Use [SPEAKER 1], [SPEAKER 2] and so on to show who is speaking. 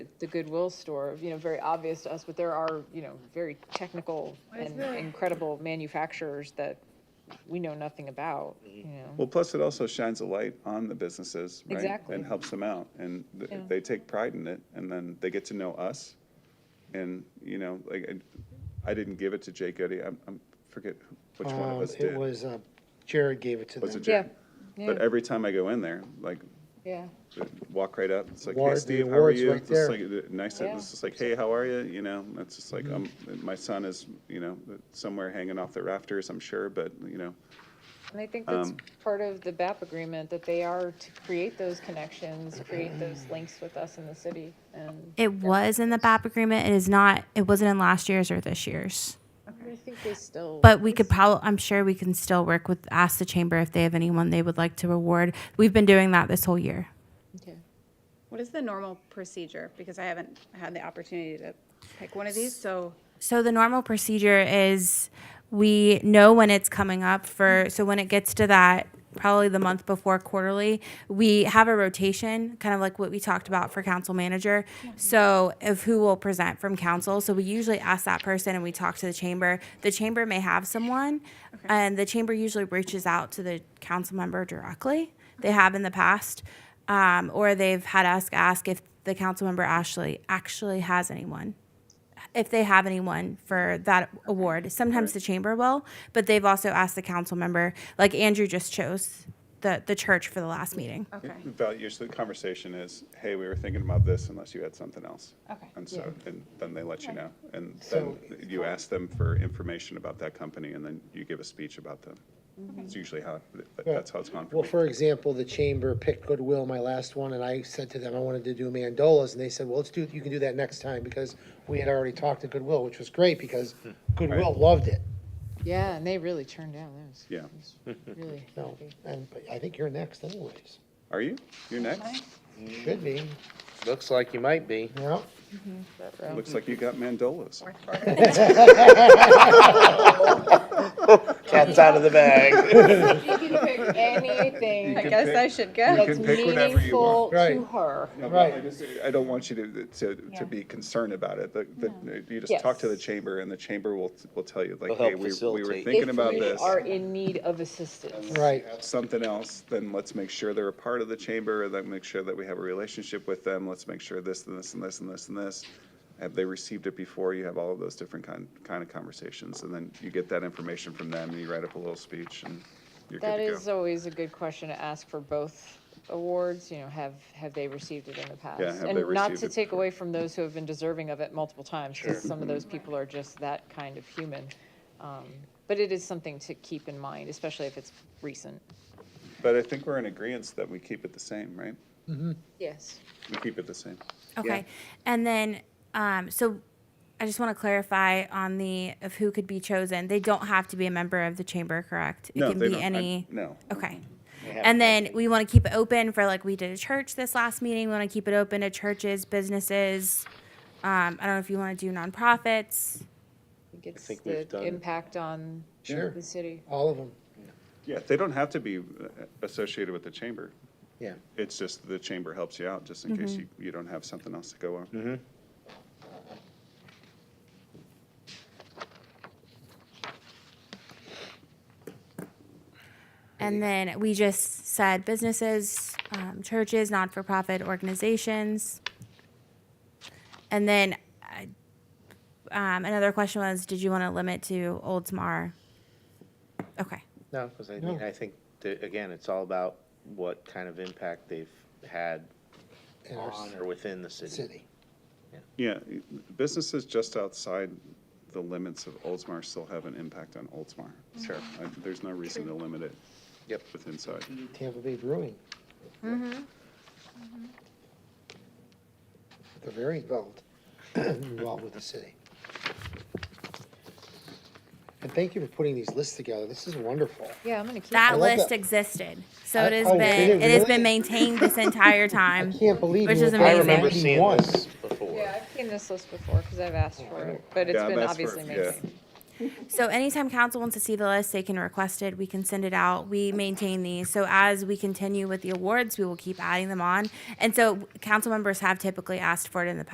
[SPEAKER 1] the Goodwill store, you know, very obvious to us, but there are, you know, very technical and incredible manufacturers that we know nothing about, you know.
[SPEAKER 2] Mm-hmm. Well, plus it also shines a light on the businesses, right?
[SPEAKER 1] Exactly.
[SPEAKER 2] And helps them out, and th-
[SPEAKER 1] Yeah.
[SPEAKER 2] they take pride in it, and then they get to know us. And, you know, like, and I didn't give it to Jake Goody, I'm, I'm, forget which one of
[SPEAKER 3] Um,
[SPEAKER 2] us
[SPEAKER 3] It
[SPEAKER 2] did.
[SPEAKER 3] was, uh, Jared gave it to
[SPEAKER 2] Was it
[SPEAKER 3] them.
[SPEAKER 1] Yeah,
[SPEAKER 2] Jared?
[SPEAKER 1] yeah,
[SPEAKER 2] But uh, every time I go in there, like,
[SPEAKER 1] yeah,
[SPEAKER 2] they walk right up, it's like, hey,
[SPEAKER 3] Award- the
[SPEAKER 2] Steve, how are
[SPEAKER 3] award's
[SPEAKER 2] you?
[SPEAKER 3] right
[SPEAKER 2] It's just
[SPEAKER 3] there.
[SPEAKER 2] like, uh, Nice,
[SPEAKER 1] Yeah.
[SPEAKER 2] it's just like, hey, how are you, you know, it's just like, um,
[SPEAKER 3] Mm-hmm.
[SPEAKER 2] my son is, you know, somewhere hanging off the rafters, I'm sure, but, you know,
[SPEAKER 1] and I think that's
[SPEAKER 2] Um,
[SPEAKER 1] part of the BAP agreement, that they are to create those connections, create those links with us in the city, and
[SPEAKER 4] It was in the BAP agreement. It is not. It wasn't in last year's or this year's.
[SPEAKER 1] I think they still.
[SPEAKER 4] But we could probably. I'm sure we can still work with. Ask the chamber if they have anyone they would like to reward. We've been doing that this whole year.
[SPEAKER 1] Okay.
[SPEAKER 5] What is the normal procedure? Because I haven't had the opportunity to pick one of these, so
[SPEAKER 4] So the normal procedure is we know when it's coming up for so when it gets to that probably the month before quarterly we have a rotation kind of like what we talked about for council manager so of who will present from council so we usually ask that person and we talk to the chamber the chamber may have someone and the chamber usually reaches out to the council member directly they have in the past um, or they've had us ask if the council member actually actually has anyone if they have anyone for that award. Sometimes the chamber will, but they've also asked the council member. Like Andrew just chose the the church for the last meeting.
[SPEAKER 5] okay.
[SPEAKER 2] The value- Usually the conversation is, hey, we were thinking about this unless you had something else.
[SPEAKER 5] Okay.
[SPEAKER 2] And so, and then they let you know. And then
[SPEAKER 3] So-
[SPEAKER 2] you ask them for information about that company and then you give a speech about them.
[SPEAKER 1] Mm-hmm.
[SPEAKER 2] It's usually how, that- that's how it's gone for
[SPEAKER 3] Well,
[SPEAKER 2] me.
[SPEAKER 3] for example, the chamber picked Goodwill, my last one, and I said to them, I wanted to do mandolas, and they said, well, let's do, you can do that next time, because we had already talked to Goodwill, which was great, because
[SPEAKER 2] Hmm.
[SPEAKER 3] Goodwill loved it.
[SPEAKER 1] Yeah, and they really churned out, that was.
[SPEAKER 2] Yeah.
[SPEAKER 1] that was Really
[SPEAKER 3] No,
[SPEAKER 1] happy.
[SPEAKER 3] and but I think you're next anyways.
[SPEAKER 2] Are you? You're next?
[SPEAKER 3] Should be,
[SPEAKER 6] Looks like you might be.
[SPEAKER 3] no?
[SPEAKER 2] Looks like you got mandolas.
[SPEAKER 6] Cat's out of the bag.
[SPEAKER 1] You can pick anything
[SPEAKER 5] I guess I should go.
[SPEAKER 1] that's
[SPEAKER 2] can pick whatever you
[SPEAKER 1] meaningful
[SPEAKER 2] want.
[SPEAKER 1] to
[SPEAKER 3] Right.
[SPEAKER 1] her.
[SPEAKER 2] No, but
[SPEAKER 3] Right.
[SPEAKER 2] I just- I don't want you to, to, to be concerned about it. The- the- You just talk to the
[SPEAKER 1] Yes.
[SPEAKER 2] chamber and the chamber will, will tell you like,
[SPEAKER 6] They'll help
[SPEAKER 2] hey, we, we were
[SPEAKER 6] facilitate.
[SPEAKER 2] thinking about
[SPEAKER 1] If
[SPEAKER 2] this.
[SPEAKER 1] we are in need of assistance.
[SPEAKER 3] Right,
[SPEAKER 2] something else, then let's make sure they're a part of the chamber, and then make sure that we have a relationship with them, let's make sure this, and this, and this, and this, and this. Have they received it before? You have all of those different kind, kind of conversations, and then you get that information from them, and you write up a little speech, and you're
[SPEAKER 1] That
[SPEAKER 2] good
[SPEAKER 1] is
[SPEAKER 2] to go.
[SPEAKER 1] always a good question to ask for both awards, you know, have, have they received it in the past?
[SPEAKER 2] have they
[SPEAKER 1] And not
[SPEAKER 2] received
[SPEAKER 1] to
[SPEAKER 2] it
[SPEAKER 1] take
[SPEAKER 2] before?
[SPEAKER 1] away from those who have been deserving of it multiple times, because some of those people are just that kind of human. Um, But it is something to keep in mind, especially if it's recent.
[SPEAKER 2] But I think we're in agreement that we keep it the same, right?
[SPEAKER 1] Yes.
[SPEAKER 2] We keep it the same.
[SPEAKER 4] Okay. And then um, so I just want to clarify on the of who could be chosen. They don't have to be a member of the chamber, correct? It
[SPEAKER 2] No,
[SPEAKER 4] can
[SPEAKER 2] they
[SPEAKER 4] be
[SPEAKER 2] don't- I-
[SPEAKER 4] any
[SPEAKER 2] No.
[SPEAKER 4] Okay. And then we want to keep it open for like we did a church this last meeting. We want to keep it open to churches, businesses. Um, I don't know if you want to do nonprofits.
[SPEAKER 1] It's
[SPEAKER 6] think we've
[SPEAKER 1] the
[SPEAKER 6] done-
[SPEAKER 1] impact on
[SPEAKER 3] sure,
[SPEAKER 1] the city.
[SPEAKER 3] all of them,
[SPEAKER 2] Yeah, they don't have to be uh, associated with the chamber.
[SPEAKER 3] yeah.
[SPEAKER 2] It's just the chamber helps you out, just in
[SPEAKER 4] Mm-hmm.
[SPEAKER 2] case you, you don't have something else to go on.
[SPEAKER 4] And then we just said businesses, um, churches, non for profit organizations. And then I- um, another question was Did you want to limit to Oldsmar? Okay.
[SPEAKER 6] No, because I mean,
[SPEAKER 3] No.
[SPEAKER 6] I think, that, again, it's all about what kind of impact they've had
[SPEAKER 3] In our
[SPEAKER 6] on or within the city.
[SPEAKER 3] city.
[SPEAKER 2] Yeah, businesses just outside the limits of Oldsmar still have an impact on Oldsmar. Sure. There's no reason to limit it.
[SPEAKER 6] Yep.
[SPEAKER 2] With inside.
[SPEAKER 3] Tampa Bay Brewing.
[SPEAKER 4] Mm-hmm.
[SPEAKER 3] Mm-hmm. They're very involved, involved with the city. And thank you for putting these lists together. This is wonderful.
[SPEAKER 1] Yeah, I'm gonna keep.
[SPEAKER 4] That
[SPEAKER 3] love
[SPEAKER 4] list
[SPEAKER 3] that.
[SPEAKER 4] existed. So
[SPEAKER 3] I-
[SPEAKER 4] it has
[SPEAKER 3] oh, did
[SPEAKER 4] been it
[SPEAKER 3] it
[SPEAKER 4] has
[SPEAKER 3] really?
[SPEAKER 4] been maintained this entire
[SPEAKER 3] I
[SPEAKER 4] time.
[SPEAKER 3] can't believe
[SPEAKER 4] Which
[SPEAKER 3] you
[SPEAKER 4] is
[SPEAKER 3] were
[SPEAKER 6] I
[SPEAKER 4] amazing.
[SPEAKER 6] remember seeing
[SPEAKER 3] 91.
[SPEAKER 6] this before.
[SPEAKER 1] Yeah, I've seen this list before, because I've asked for it, but it's
[SPEAKER 2] Yeah, I've
[SPEAKER 1] been
[SPEAKER 2] asked for it,
[SPEAKER 1] obviously
[SPEAKER 2] yeah.
[SPEAKER 1] maintained.
[SPEAKER 4] So anytime council wants to see the list, they can request it. We can send it out. We maintain these. So as we continue with the awards, we will keep adding them on. And so council members have typically asked for it in the past.